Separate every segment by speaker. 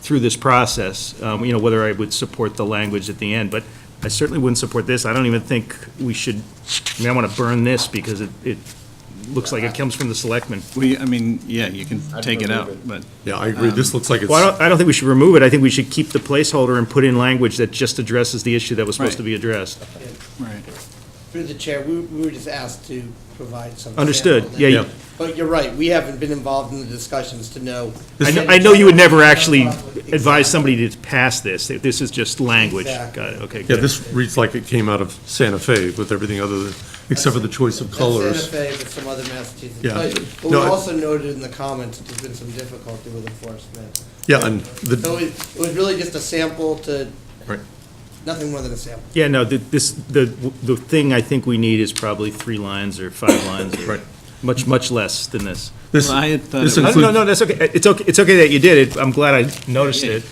Speaker 1: through this process, um, you know, whether I would support the language at the end, but I certainly wouldn't support this. I don't even think we should, I mean, I want to burn this because it, it looks like it comes from the selectmen.
Speaker 2: We, I mean, yeah, you can
Speaker 3: I'd
Speaker 2: take it
Speaker 3: remove
Speaker 2: out,
Speaker 3: it.
Speaker 2: but
Speaker 4: Yeah, I agree.
Speaker 2: Um,
Speaker 4: This looks like
Speaker 1: Well, I
Speaker 4: it's,
Speaker 1: don't, I don't think we should remove it. I think we should keep the placeholder and put in language that just addresses the issue that was supposed to
Speaker 2: Right.
Speaker 1: be addressed.
Speaker 2: right.
Speaker 3: Through the chair, we we were just asked to provide some.
Speaker 1: Understood.
Speaker 3: sample
Speaker 1: Yeah,
Speaker 3: data.
Speaker 1: you- Yeah.
Speaker 3: But you're right, we haven't been involved in the discussions to know.
Speaker 1: I know, I know you would never actually advise somebody to pass this. This is just language.
Speaker 3: Exactly.
Speaker 1: Got it, okay.
Speaker 4: yeah,
Speaker 1: good.
Speaker 4: this reads like it came out of Santa Fe with everything other than, except for the choice of
Speaker 3: That's
Speaker 4: colors.
Speaker 3: Santa Fe, but some other Massachusetts.
Speaker 4: Yeah.
Speaker 3: But but we
Speaker 4: No, I-
Speaker 3: also noted in the comments, that there's been some difficulty with enforcement.
Speaker 4: Yeah, and
Speaker 3: So
Speaker 4: the,
Speaker 2: Oh,
Speaker 3: it it was really just a sample to,
Speaker 4: Right.
Speaker 3: nothing more than a sample.
Speaker 1: Yeah, no, th- this, the, the thing I think we need is probably three lines or five lines. or
Speaker 4: Right.
Speaker 1: Much, much less than this.
Speaker 4: this,
Speaker 2: Well, I had thought
Speaker 4: this
Speaker 2: it
Speaker 1: No, no,
Speaker 4: includes,
Speaker 1: no, that's okay. It's okay, it's okay that you did it. I'm glad I noticed it.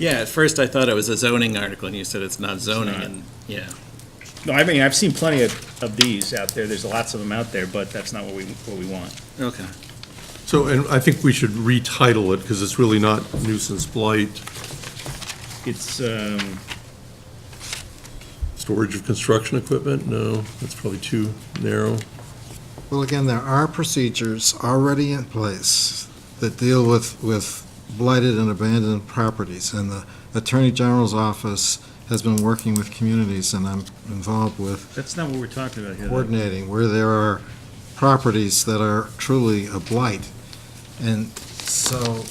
Speaker 2: Yeah, at first I thought it was a zoning article, and you said it's not zoning, and, yeah.
Speaker 1: No, I mean, I've seen plenty of, of these out there. There's lots of them out there, but that's not what we, what we want.
Speaker 2: Okay.
Speaker 4: so, and I think we should retitle it because it's really not nuisance blight,
Speaker 1: It's, um,
Speaker 4: storage of construction equipment, no, that's probably too narrow.
Speaker 5: Well, again, there are procedures already in place that deal with, with blighted and abandoned properties, and the Attorney General's office has been working with communities, and I'm involved with
Speaker 1: that's not what we're talking about here. though.
Speaker 5: coordinating where there are properties that are truly a blight. And so,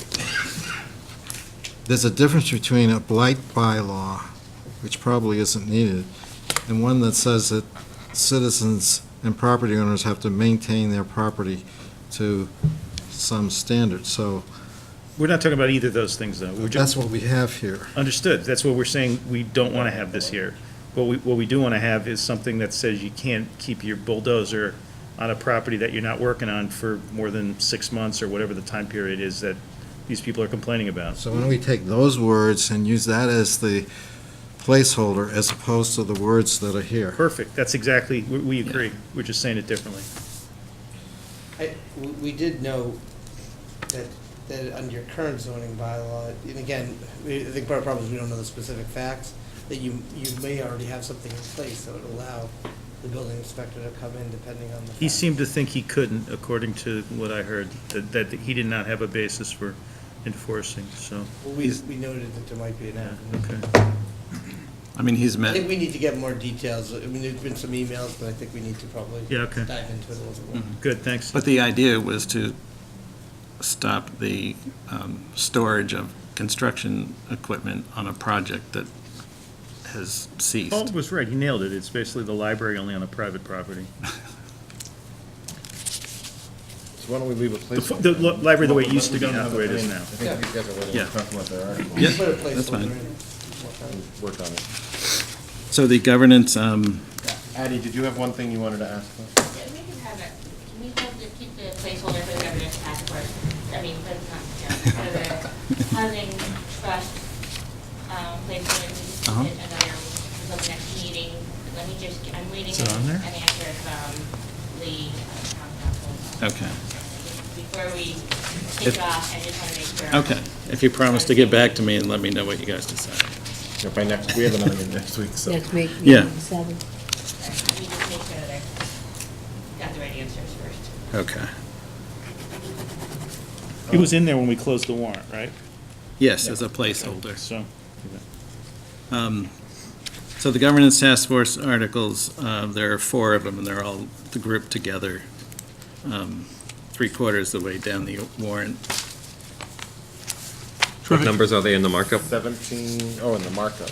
Speaker 5: there's a difference between a blight bylaw, which probably isn't needed, and one that says that citizens and property owners have to maintain their property to some standard. So
Speaker 1: We're not talking about either of those things, though. We're just,
Speaker 5: that's what we have here.
Speaker 1: Understood. That's what we're saying, we don't want to have this here. What we, what we do want to have is something that says you can't keep your bulldozer on a property that you're not working on for more than six months or whatever the time period is that these people are complaining about.
Speaker 5: So why don't we take those words and use that as the placeholder as opposed to the words that are here?
Speaker 1: Perfect. That's exactly, we, we agree. We're just saying it differently.
Speaker 3: I- we- We did know that, that under your current zoning bylaw, and again, we- I think part of the problem is we don't know the specific facts, that you, you may already have something in place that would allow the building inspector to come in depending on the.
Speaker 1: He
Speaker 3: facts.
Speaker 1: seemed to think he couldn't, according to what I heard, that, that he did not have a basis for enforcing, so,
Speaker 3: Well, We, we noted that there might be an
Speaker 1: yeah,
Speaker 3: avenue.
Speaker 1: okay.
Speaker 2: I mean, he's
Speaker 3: I think
Speaker 2: met,
Speaker 3: we need to get more details. I mean, there's been some emails, but I think we need to probably
Speaker 1: Yeah, okay.
Speaker 3: dive into it a little bit
Speaker 2: Mm-hmm.
Speaker 3: more.
Speaker 1: Good, thanks.
Speaker 2: but the idea was to stop the um, storage of construction equipment on a project that has
Speaker 1: Paul
Speaker 3: Oh.
Speaker 2: ceased.
Speaker 1: was right. He nailed it. It's basically the library only on a private property.
Speaker 6: So why don't we leave a
Speaker 1: The,
Speaker 6: placeholder?
Speaker 1: the li- library the way it
Speaker 6: Well,
Speaker 1: used to be,
Speaker 6: we don't
Speaker 1: not
Speaker 6: have
Speaker 1: the way it is
Speaker 6: plan.
Speaker 1: now.
Speaker 6: I think you guys are ready
Speaker 2: Yeah.
Speaker 6: to talk about their article.
Speaker 2: Yeah,
Speaker 3: Put a
Speaker 2: that's
Speaker 3: placeholder
Speaker 2: fine.
Speaker 3: in.
Speaker 6: Work on it.
Speaker 2: So the governance, um,
Speaker 6: Addie, did you have one thing you wanted to ask? us?
Speaker 7: Yeah, we can have it, can we hold the, keep the placeholder for the governor's task force, I mean, for the, for the housing trust, um, placeholder, we just
Speaker 2: Uh-huh.
Speaker 7: need another, for the next meeting, let me just, get- I'm waiting
Speaker 1: Is it on
Speaker 7: an
Speaker 1: there?
Speaker 7: answer from the uh, town council.
Speaker 2: Okay.
Speaker 7: Before we
Speaker 2: If-
Speaker 7: kick off, I just want to make sure.
Speaker 2: okay, if you promise to get back to me and let me know what you guys decide.
Speaker 6: Yeah, By next, we have another meeting next week, so.
Speaker 8: Next week.
Speaker 2: Yeah.
Speaker 8: meeting, Seven.
Speaker 7: Let me just make sure that I got the right answers first.
Speaker 2: Okay,
Speaker 1: It was in there when we closed the warrant, right?
Speaker 2: yes, as a placeholder.
Speaker 1: So,
Speaker 2: Um, So the governance task force articles, uh, there are four of them, and they're all grouped together, um, three quarters of the way down the warrant.
Speaker 9: What numbers are they in the markup?
Speaker 6: Seventeen, oh, and the markup.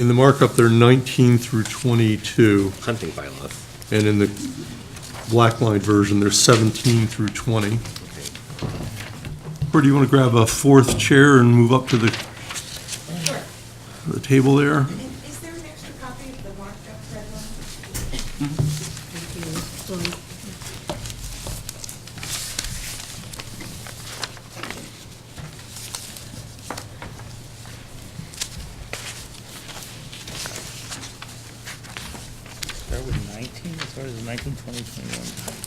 Speaker 4: In the markup, they're 19 through 22,
Speaker 9: Hunting bylaws.
Speaker 4: and in the black line version, they're 17 through 20. Or do you want to grab a fourth chair and move up to the, the table there?
Speaker 10: Is there an extra copy of the marked up red one?
Speaker 8: Thank you. Well,
Speaker 1: start with nineteen, as far as nineteen, twenty, twenty-one.